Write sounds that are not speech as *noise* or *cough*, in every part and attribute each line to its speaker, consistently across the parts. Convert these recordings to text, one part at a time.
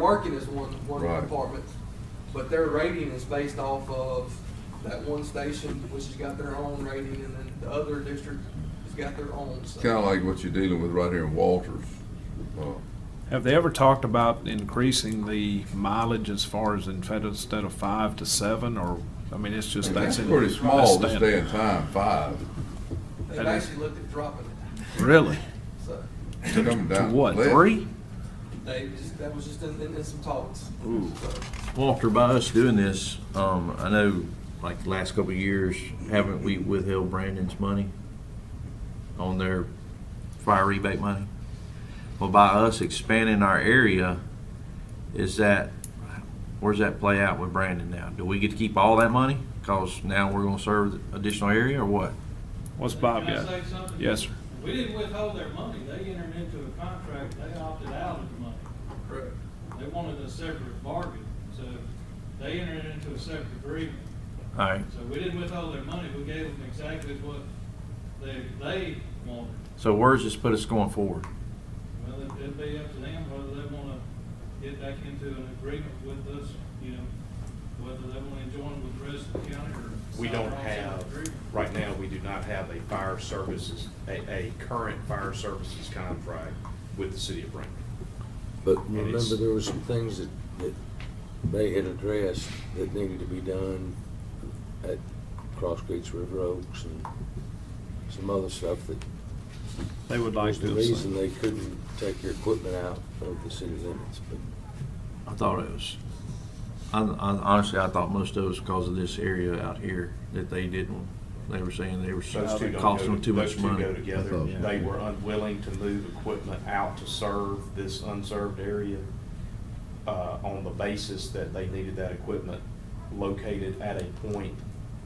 Speaker 1: Working is one, one
Speaker 2: Right.
Speaker 1: department, but their rating is based off of that one station, which has got their own rating, and then the other district has got their own. so-
Speaker 2: Kind of like what you're dealing with right here in Walters. Uh,
Speaker 3: Have they ever talked about increasing the mileage as far as in- instead of five to seven, or, I mean, it's just, that's.
Speaker 2: That's
Speaker 3: in-
Speaker 2: pretty small
Speaker 3: that's
Speaker 2: this day and time, five.
Speaker 1: They've
Speaker 3: that is-
Speaker 1: actually looked at dropping it,
Speaker 3: Really?
Speaker 1: so,
Speaker 2: It's coming
Speaker 3: To
Speaker 2: down
Speaker 3: what,
Speaker 2: less.
Speaker 3: three?
Speaker 1: they just, that was just in, in in some talks.
Speaker 3: Ooh.
Speaker 1: So-
Speaker 4: Walter, by us doing this, um, I know, like, the last couple of years, haven't we withheld Brandon's money on their fire rebate money? Well, by us expanding our area, is that, where's that play out with Brandon now? Do we get to keep all that money? Cause now we're gonna serve additional area or what?
Speaker 3: What's Bob
Speaker 5: Can I
Speaker 3: got?
Speaker 5: say something?
Speaker 3: Yes, sir.
Speaker 5: We didn't withhold their money, they entered into a contract, they opted out of the money.
Speaker 1: Correct.
Speaker 5: They wanted a separate bargain, so they entered into a separate agreement.
Speaker 4: Alright,
Speaker 5: So we didn't withhold their money, we gave them exactly what they, they wanted.
Speaker 4: so where's this put us going forward?
Speaker 5: Well, it- it'd be up to them whether they wanna get back into an agreement with us, you know, whether they wanna join with the rest of the county or.
Speaker 6: We
Speaker 5: sign
Speaker 6: don't
Speaker 5: our own
Speaker 6: have,
Speaker 5: agreement.
Speaker 6: right now, we do not have a fire services, a, a current fire services contract with the city of Brandon.
Speaker 7: But
Speaker 6: And it's-
Speaker 7: remember, there were some things that, that they had addressed that needed to be done at Cross Creeks River Oaks and some other stuff that
Speaker 3: They would like
Speaker 7: was the
Speaker 3: to.
Speaker 7: reason they couldn't take your equipment out of the city limits, but
Speaker 4: I thought it was, I, I, honestly, I thought most of it was because of this area out here that they didn't, they were saying they were,
Speaker 6: Those two
Speaker 4: it
Speaker 6: don't
Speaker 4: cost
Speaker 6: go-
Speaker 4: them too much
Speaker 6: Those
Speaker 4: money.
Speaker 6: two go together.
Speaker 4: Yeah.
Speaker 6: They were unwilling to move equipment out to serve this unserved area uh, on the basis that they needed that equipment located at a point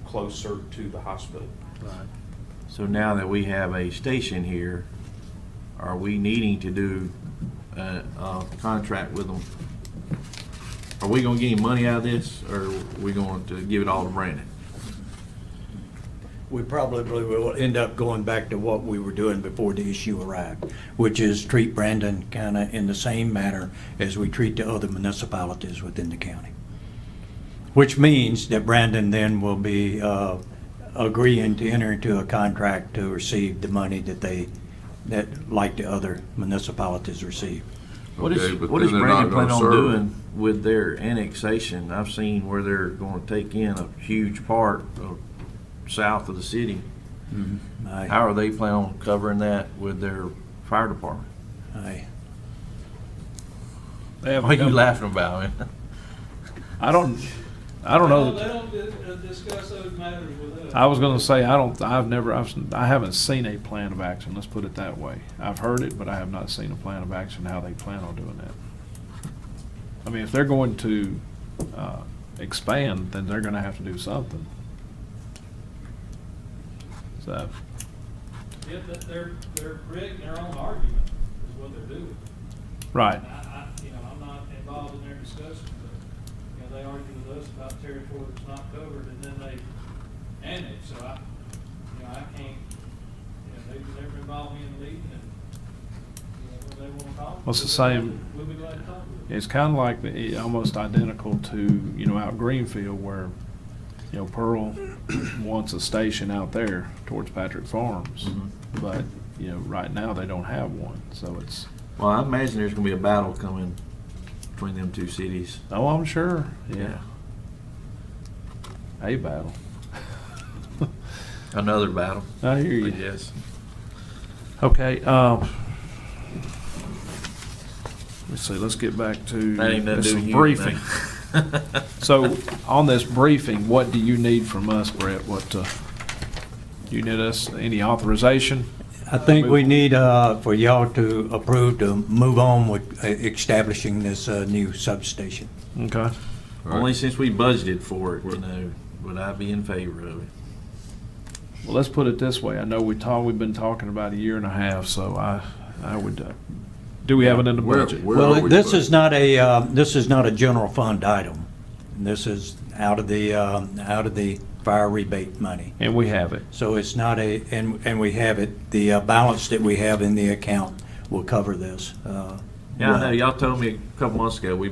Speaker 6: closer to the hospital.
Speaker 4: So now that we have a station here, are we needing to do a, a contract with them? Are we gonna get any money out of this, or are we going to give it all to Brandon?
Speaker 8: we probably will end up going back to what we were doing before the issue arrived, which is treat Brandon kind of in the same manner as we treat the other municipalities within the county. Which means that Brandon then will be uh, agreeing to enter into a contract to receive the money that they, that, like the other municipalities receive.
Speaker 4: What
Speaker 2: Okay,
Speaker 4: is,
Speaker 2: but
Speaker 4: what is
Speaker 2: then they're not
Speaker 4: Brandon planning on
Speaker 2: gonna serve.
Speaker 4: doing with their annexation? I've seen where they're gonna take in a huge part of, south of the city.
Speaker 8: I,
Speaker 4: How are they planning on covering that with their fire department? *laughs*
Speaker 8: I,
Speaker 3: They haven't
Speaker 4: What are you
Speaker 3: come-
Speaker 4: laughing about, man?
Speaker 3: I don't, I don't
Speaker 5: They
Speaker 3: know.
Speaker 5: don't, they don't di- uh, discuss those matters with us.
Speaker 3: I was gonna say, I don't, I've never, I've, s- I haven't seen a plan of action, let's put it that way. I've heard it, but I have not seen a plan of action, how they plan on doing that. I mean, if they're going to, uh, expand, then they're gonna have to do something. So,
Speaker 5: Yeah, but they're, they're creating their own argument is what they're doing.
Speaker 3: right,
Speaker 5: And I, I, you know, I'm not involved in their discussion, but, you know, they argue with us about territory that's not covered and then they annex, so I, you know, I can't, you know, they've never involved me in the meeting and, you know, when they wanna talk.
Speaker 3: Well, it's the
Speaker 5: we'll be glad
Speaker 3: same-
Speaker 5: to- We'll be glad to talk with them.
Speaker 3: It's kind of like, the- almost identical to, you know, out Greenfield where, you know, Pearl *clears throat* wants a station out there towards Patrick Farms.
Speaker 4: Mm-hmm.
Speaker 3: But, you know, right now they don't have one, so it's,
Speaker 4: Well, I imagine there's gonna be a battle coming between them two cities.
Speaker 3: oh, I'm sure, yeah, a battle.
Speaker 4: Another battle.
Speaker 3: I hear you.
Speaker 4: Yes.
Speaker 3: Okay, um, let's see, let's get back to.
Speaker 4: That ain't nothing
Speaker 3: this
Speaker 4: to do
Speaker 3: is
Speaker 4: with you.
Speaker 3: Briefing.
Speaker 4: man.
Speaker 3: So on this briefing, what do you need from us, Brett? What, uh, you need us, any authorization?
Speaker 8: I think we need, uh, for y'all to approve to move on with uh, establishing this, uh, new substation.
Speaker 3: Okay.
Speaker 4: *laughs* Only since we budgeted for it, you know, would I be in favor of it.
Speaker 3: Well, let's put it this way. I know we talked, we've been talking about a year and a half, so I, I would, uh, do we have it in the
Speaker 2: Where-
Speaker 3: budget?
Speaker 2: where are
Speaker 8: Well,
Speaker 2: we
Speaker 8: this
Speaker 2: putting-
Speaker 8: is not a, uh, this is not a general fund item. This is out of the, um, out of the fire rebate money.
Speaker 3: And we have it.
Speaker 8: So it's not a, and, and we have it, the uh, balance that we have in the account will cover this. uh,
Speaker 4: Yeah, I
Speaker 8: well.
Speaker 4: know, y'all told me a couple months ago, we